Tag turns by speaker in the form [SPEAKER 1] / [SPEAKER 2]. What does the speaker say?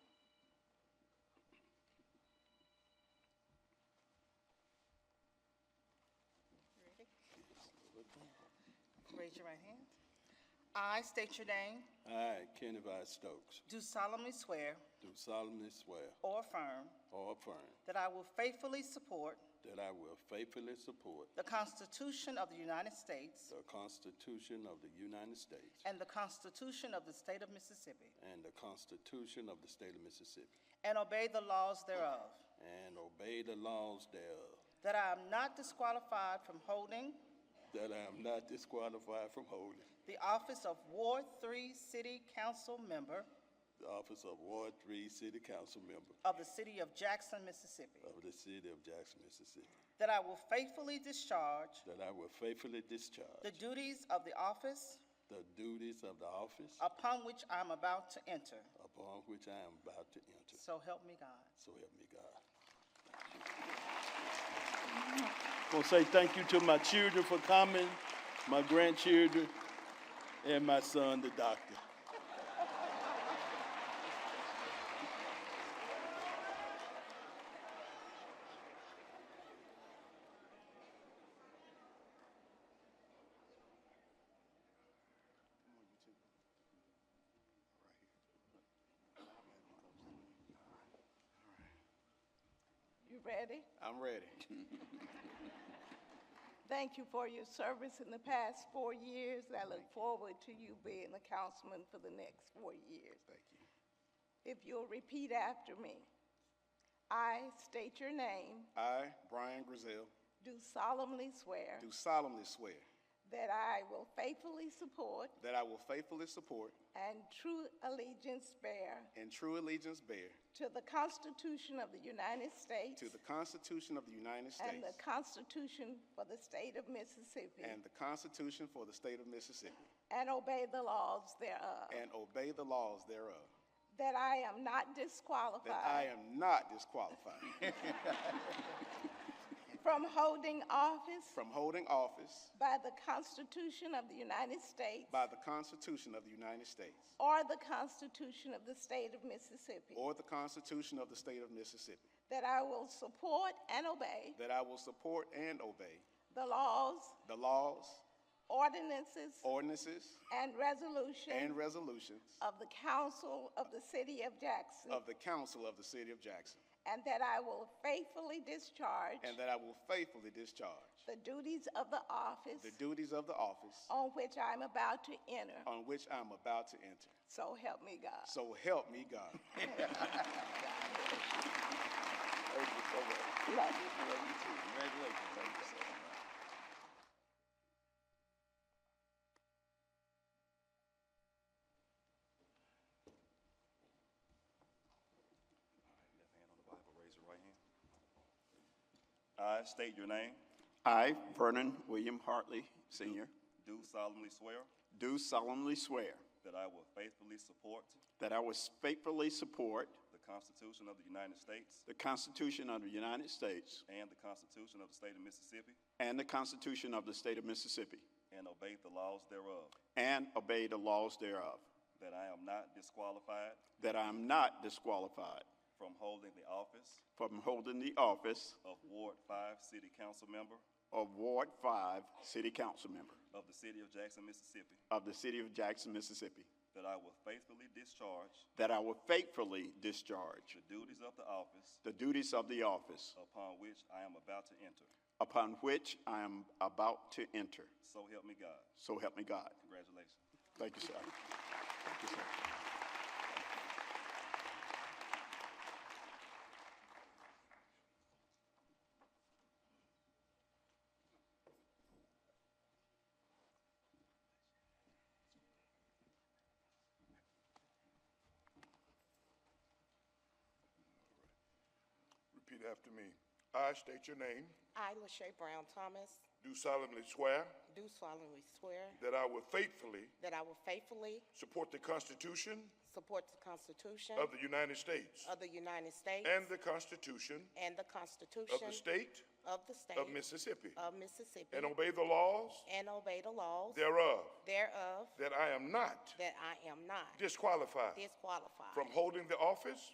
[SPEAKER 1] Raise your right hand. I state your name,
[SPEAKER 2] I, Kenny Vi Stokes,
[SPEAKER 1] do solemnly swear
[SPEAKER 2] do solemnly swear
[SPEAKER 1] or affirm
[SPEAKER 2] or affirm
[SPEAKER 1] that I will faithfully support
[SPEAKER 2] that I will faithfully support
[SPEAKER 1] the Constitution of the United States
[SPEAKER 2] the Constitution of the United States
[SPEAKER 1] and the Constitution of the State of Mississippi,
[SPEAKER 2] and the Constitution of the State of Mississippi,
[SPEAKER 1] and obey the laws thereof,
[SPEAKER 2] and obey the laws thereof,
[SPEAKER 1] that I am not disqualified from holding
[SPEAKER 2] that I am not disqualified from holding
[SPEAKER 1] the office of Ward Three City Council Member
[SPEAKER 2] the office of Ward Three City Council Member
[SPEAKER 1] of the City of Jackson, Mississippi,
[SPEAKER 2] of the City of Jackson, Mississippi,
[SPEAKER 1] that I will faithfully discharge
[SPEAKER 2] that I will faithfully
[SPEAKER 1] the
[SPEAKER 2] discharge
[SPEAKER 1] duties of the office
[SPEAKER 2] the duties of the office
[SPEAKER 1] upon which I'm about to enter.
[SPEAKER 2] upon which I am about to enter.
[SPEAKER 1] So help me God.
[SPEAKER 2] So help me God. Gonna say thank you to my children for coming, my grandchildren, and my son, the doctor.
[SPEAKER 3] You ready?
[SPEAKER 2] I'm ready.
[SPEAKER 3] Thank you for your service in the past four years. I look forward to you being the councilman for the next four years.
[SPEAKER 2] Thank you.
[SPEAKER 3] If you'll repeat after me. I state your name,
[SPEAKER 4] I, Brian Grizel,
[SPEAKER 3] do solemnly swear
[SPEAKER 4] do solemnly swear
[SPEAKER 3] that I will faithfully support
[SPEAKER 4] that I will faithfully support
[SPEAKER 3] and true allegiance bear
[SPEAKER 4] and true allegiance bear
[SPEAKER 3] to the Constitution of the United States
[SPEAKER 4] to the Constitution of the United
[SPEAKER 3] and the
[SPEAKER 4] States
[SPEAKER 3] Constitution for the State of Mississippi
[SPEAKER 4] and the Constitution for the State of Mississippi,
[SPEAKER 3] and obey the laws thereof,
[SPEAKER 4] and obey the laws thereof,
[SPEAKER 3] that I am not disqualified
[SPEAKER 4] that I am not disqualified
[SPEAKER 3] From holding office
[SPEAKER 4] from holding office
[SPEAKER 3] by the Constitution of the United States
[SPEAKER 4] by the Constitution of the United States
[SPEAKER 3] or the Constitution of the State of Mississippi,
[SPEAKER 4] or the Constitution of the State of Mississippi,
[SPEAKER 3] that I will support and obey
[SPEAKER 4] that I will support and obey
[SPEAKER 3] the laws,
[SPEAKER 4] the laws,
[SPEAKER 3] ordinances,
[SPEAKER 4] ordinances,
[SPEAKER 3] and
[SPEAKER 4] and
[SPEAKER 3] resolutions
[SPEAKER 4] resolutions
[SPEAKER 3] of the Council of the City of Jackson,
[SPEAKER 4] of the Council of the City of Jackson,
[SPEAKER 3] and that I will faithfully discharge
[SPEAKER 4] and that I will faithfully discharge
[SPEAKER 3] the duties of the office
[SPEAKER 4] The duties of the office
[SPEAKER 3] on which I'm about to enter.
[SPEAKER 4] on which I'm about to enter.
[SPEAKER 3] So help me God.
[SPEAKER 4] So help me God.
[SPEAKER 3] Love you.
[SPEAKER 5] Left hand on the Bible, raise your right hand. I state your name,
[SPEAKER 6] I, Vernon William Hartley, Sr.,
[SPEAKER 5] do solemnly swear
[SPEAKER 6] do solemnly swear
[SPEAKER 5] that I will faithfully support
[SPEAKER 6] that I will faithfully support
[SPEAKER 5] the Constitution of the United States
[SPEAKER 6] the Constitution of the United States
[SPEAKER 5] and the Constitution of the State of Mississippi,
[SPEAKER 6] and the Constitution of the State of Mississippi,
[SPEAKER 5] and obey the laws thereof,
[SPEAKER 6] and obey the laws thereof,
[SPEAKER 5] that I am not disqualified
[SPEAKER 6] that I am not disqualified
[SPEAKER 5] from holding the office
[SPEAKER 6] from holding the office
[SPEAKER 5] of Ward Five City Council Member
[SPEAKER 6] of Ward 5 City Council Member
[SPEAKER 5] of the City of Jackson, Mississippi,
[SPEAKER 6] of the City of Jackson, Mississippi,
[SPEAKER 5] that I will faithfully discharge
[SPEAKER 6] that I will faithfully discharge
[SPEAKER 5] the duties of the office
[SPEAKER 6] the duties of the office
[SPEAKER 5] upon which I am about to enter.
[SPEAKER 6] upon which I am about to enter.
[SPEAKER 5] So help me God.
[SPEAKER 6] So help me God.
[SPEAKER 5] Congratulations.
[SPEAKER 6] Thank you, sir.
[SPEAKER 7] Repeat after me. I state your name,
[SPEAKER 8] I, Lachey Brown Thomas,
[SPEAKER 7] do solemnly swear
[SPEAKER 8] do solemnly swear
[SPEAKER 7] that I will faithfully
[SPEAKER 8] that I will faithfully
[SPEAKER 7] support the Constitution
[SPEAKER 8] support the Constitution
[SPEAKER 7] of the United States
[SPEAKER 8] of the United States
[SPEAKER 7] and the Constitution
[SPEAKER 8] and the
[SPEAKER 7] of
[SPEAKER 8] Constitution
[SPEAKER 7] the State
[SPEAKER 8] of the State
[SPEAKER 7] of Mississippi,
[SPEAKER 8] of Mississippi,
[SPEAKER 7] and obey the laws
[SPEAKER 8] and obey the laws
[SPEAKER 7] thereof,
[SPEAKER 8] thereof,
[SPEAKER 7] that I am not
[SPEAKER 8] that I am not
[SPEAKER 7] disqualified
[SPEAKER 8] disqualified
[SPEAKER 7] from holding the office